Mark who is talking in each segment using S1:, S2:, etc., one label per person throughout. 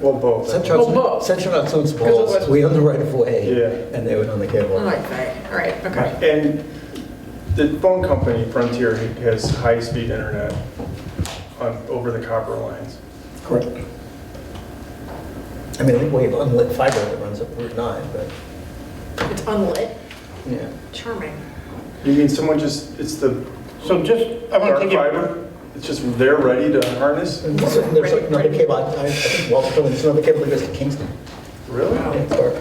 S1: Well, both.
S2: Central,
S3: Well, both.
S2: Central Hudson owns
S3: Because it
S2: balls,
S3: was-
S2: we own the right of way.
S1: Yeah.
S2: And they would own the cable.
S3: Oh, okay, all right, okay.
S1: And the phone company Frontier has high-speed internet on, over the copper lines.
S2: Correct. I mean, I think we have unlit fiber that runs up Route 9, but,
S3: It's unlit,
S2: yeah.
S3: charming.
S1: You mean someone just, it's the
S4: So just, I want
S1: dark
S4: to take you,
S1: fiber? It's just they're ready to harness?
S2: And there's there's like another cable, I I think, well, there's another cable that goes to Kingston.
S1: Really?
S2: Or-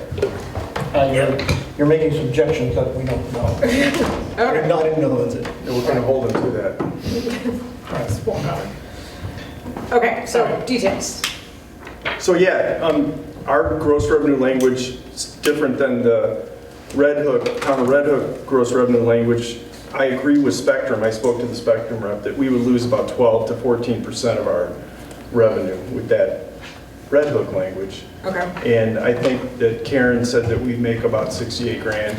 S4: uh, you're, you're making subjections that we don't
S2: I
S4: know.
S2: didn't
S3: Okay.
S2: know, I didn't know who owns it.
S1: And we're gonna hold them to that.
S3: Okay, so details.
S1: So yeah, um, our gross revenue language is different than the Red Hook, town of Red Hook gross revenue language. I agree with Spectrum, I spoke to the Spectrum rep, that we would lose about 12 to 14% of our revenue with that Red Hook language.
S3: Okay,
S1: And I think that Karen said that we make about 68 grand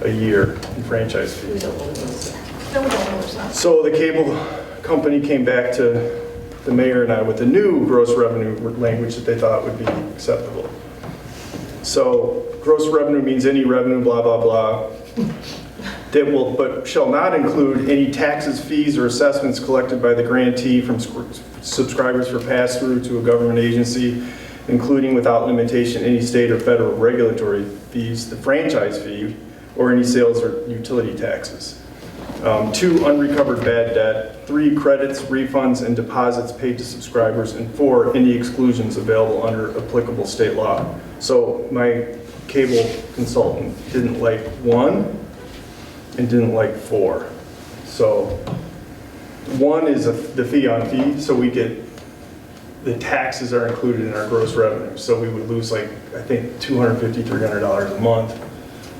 S1: a year in franchise fees. So the cable company came back to the mayor and I with a new gross revenue language that they thought would be acceptable. So gross revenue means any revenue, blah, blah, blah, that will, but shall not include any taxes, fees, or assessments collected by the grantee from sc- subscribers for pass-through to a government agency, including without limitation any state or federal regulatory fees, the franchise fee, or any sales or utility taxes. Um, Two, unrecovered bad debt. Three, credits, refunds, and deposits paid to subscribers. And four, any exclusions available under applicable state law. So my cable consultant didn't like one and didn't like four. So one is a- the fee on fee, so we get, the taxes are included in our gross revenue. So we would lose like, I think, $250, $300 a month.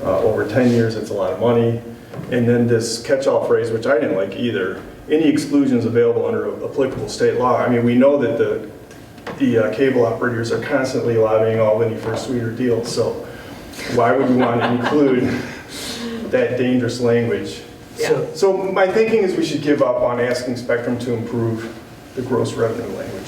S1: Uh, Over 10 years, it's a lot of money. And then this catch-all phrase, which I didn't like either, any exclusions available under applicable state law. I mean, we know that the, the uh, cable operators are constantly lobbying Albany for sweeter deals, so why would we want to include that dangerous language?
S2: So,
S1: So my thinking is we should give up on asking Spectrum to improve the gross revenue language.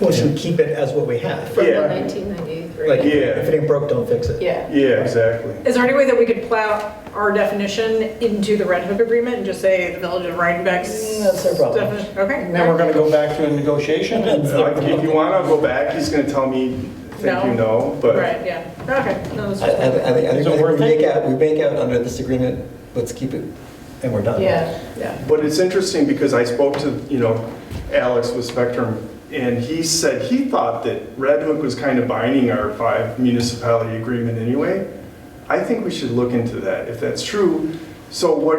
S2: well, should we keep it as what we have?
S1: Yeah.
S5: 1993.
S2: Like,
S1: Yeah.
S2: if it ain't broke, don't fix it.
S5: Yeah.
S1: Yeah, exactly.
S3: Is there any way that we could plow our definition into the Red Hook Agreement and just say the Village of Rhinebeck's?
S2: Mm, that's their problem.
S3: defini- Okay.
S4: And then we're going to go back to a negotiation and.
S1: Like, Uh, If you want to go back, he's going to tell me, thank you, no, but
S3: Right, yeah, okay, no, that's
S2: I, I, I think- I think, I
S4: Is it
S2: think we
S4: worth it?
S2: make out, we make out under this agreement, let's keep it, and we're done.
S5: Yeah.
S3: yeah,
S1: But it's interesting because I spoke to, you know, Alex with Spectrum, and he said he thought that Red Hook was kind of binding our five municipality agreement anyway. I think we should look into that, if that's true. So what,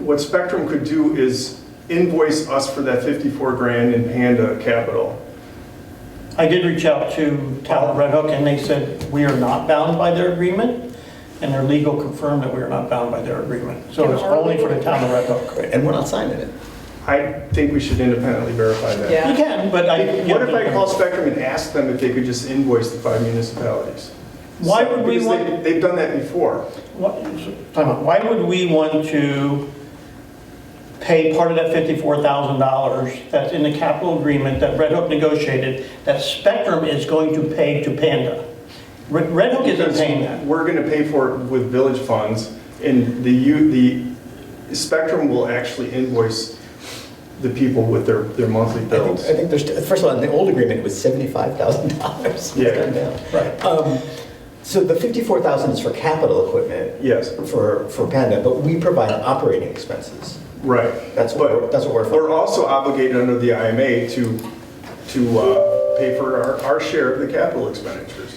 S1: what Spectrum could do is invoice us for that 54 grand in Panda Capital.
S4: I did reach out to Talent Red Hook and they said, we are not bound by their agreement. And their legal confirmed that we are not bound by their agreement. So it's only for the town of Red Hook.
S2: Right, And we're not signing it.
S1: I think we should independently verify that.
S3: yeah.
S4: You can, but I.
S1: What if I call Spectrum and ask them if they could just invoice the five municipalities?
S4: Why would we
S1: Because
S4: want-
S1: they- They've done that before.
S4: What- time out. Why would we want to pay part of that $54,000 that's in the capital agreement that Red Hook negotiated, that Spectrum is going to pay to Panda? Red Red Hook isn't
S1: Because
S4: paying that.
S1: We're gonna pay for it with village funds, and the, U- the Spectrum will actually invoice the people with their, their monthly
S2: I think,
S1: bills.
S2: I think there's, first of all, in the old agreement, it was seventy-five thousand dollars.
S1: Yeah.
S4: Right.
S2: Um, so the fifty-four thousand is for capital equipment.
S1: Yes,
S2: For, for Panda, but we provide operating expenses.
S1: right.
S2: That's what we're-
S1: But
S2: that's what we're for.
S1: We're also obligated under the IMA to, to uh, pay for our, our share of the capital expenditures.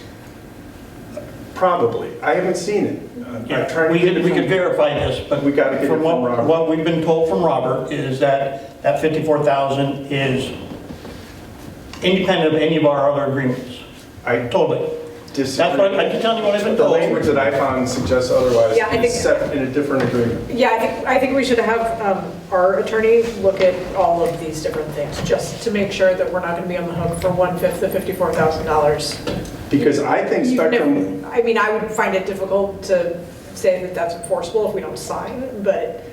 S1: Probably. I haven't seen it. I'm trying
S4: Yeah,
S1: to
S4: we
S1: get it
S4: could, we
S1: from-
S4: could verify this, but.
S1: We gotta get it from
S4: what-
S1: Robert.
S4: What we've been told from Robert is that that 54,000 is independent of any of our other agreements,
S1: I
S4: totally.
S1: disagree.
S4: That's what, I can tell you what I've been
S1: The
S4: told.
S1: language that I found suggests otherwise,
S3: Yeah, I think-
S1: except in a different agreement.
S3: Yeah, I think, I think we should have um, our attorney look at all of these different things, just to make sure that we're not going to be on the hook for one-fifth of $54,000.
S1: Because I think
S3: Even if-
S1: Spectrum
S3: I mean, I would find it difficult to say that that's enforceable if we don't sign, but,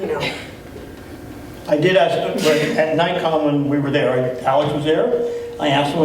S3: you know,
S4: I did ask, at NICOM when we were there, Alex was there, I asked him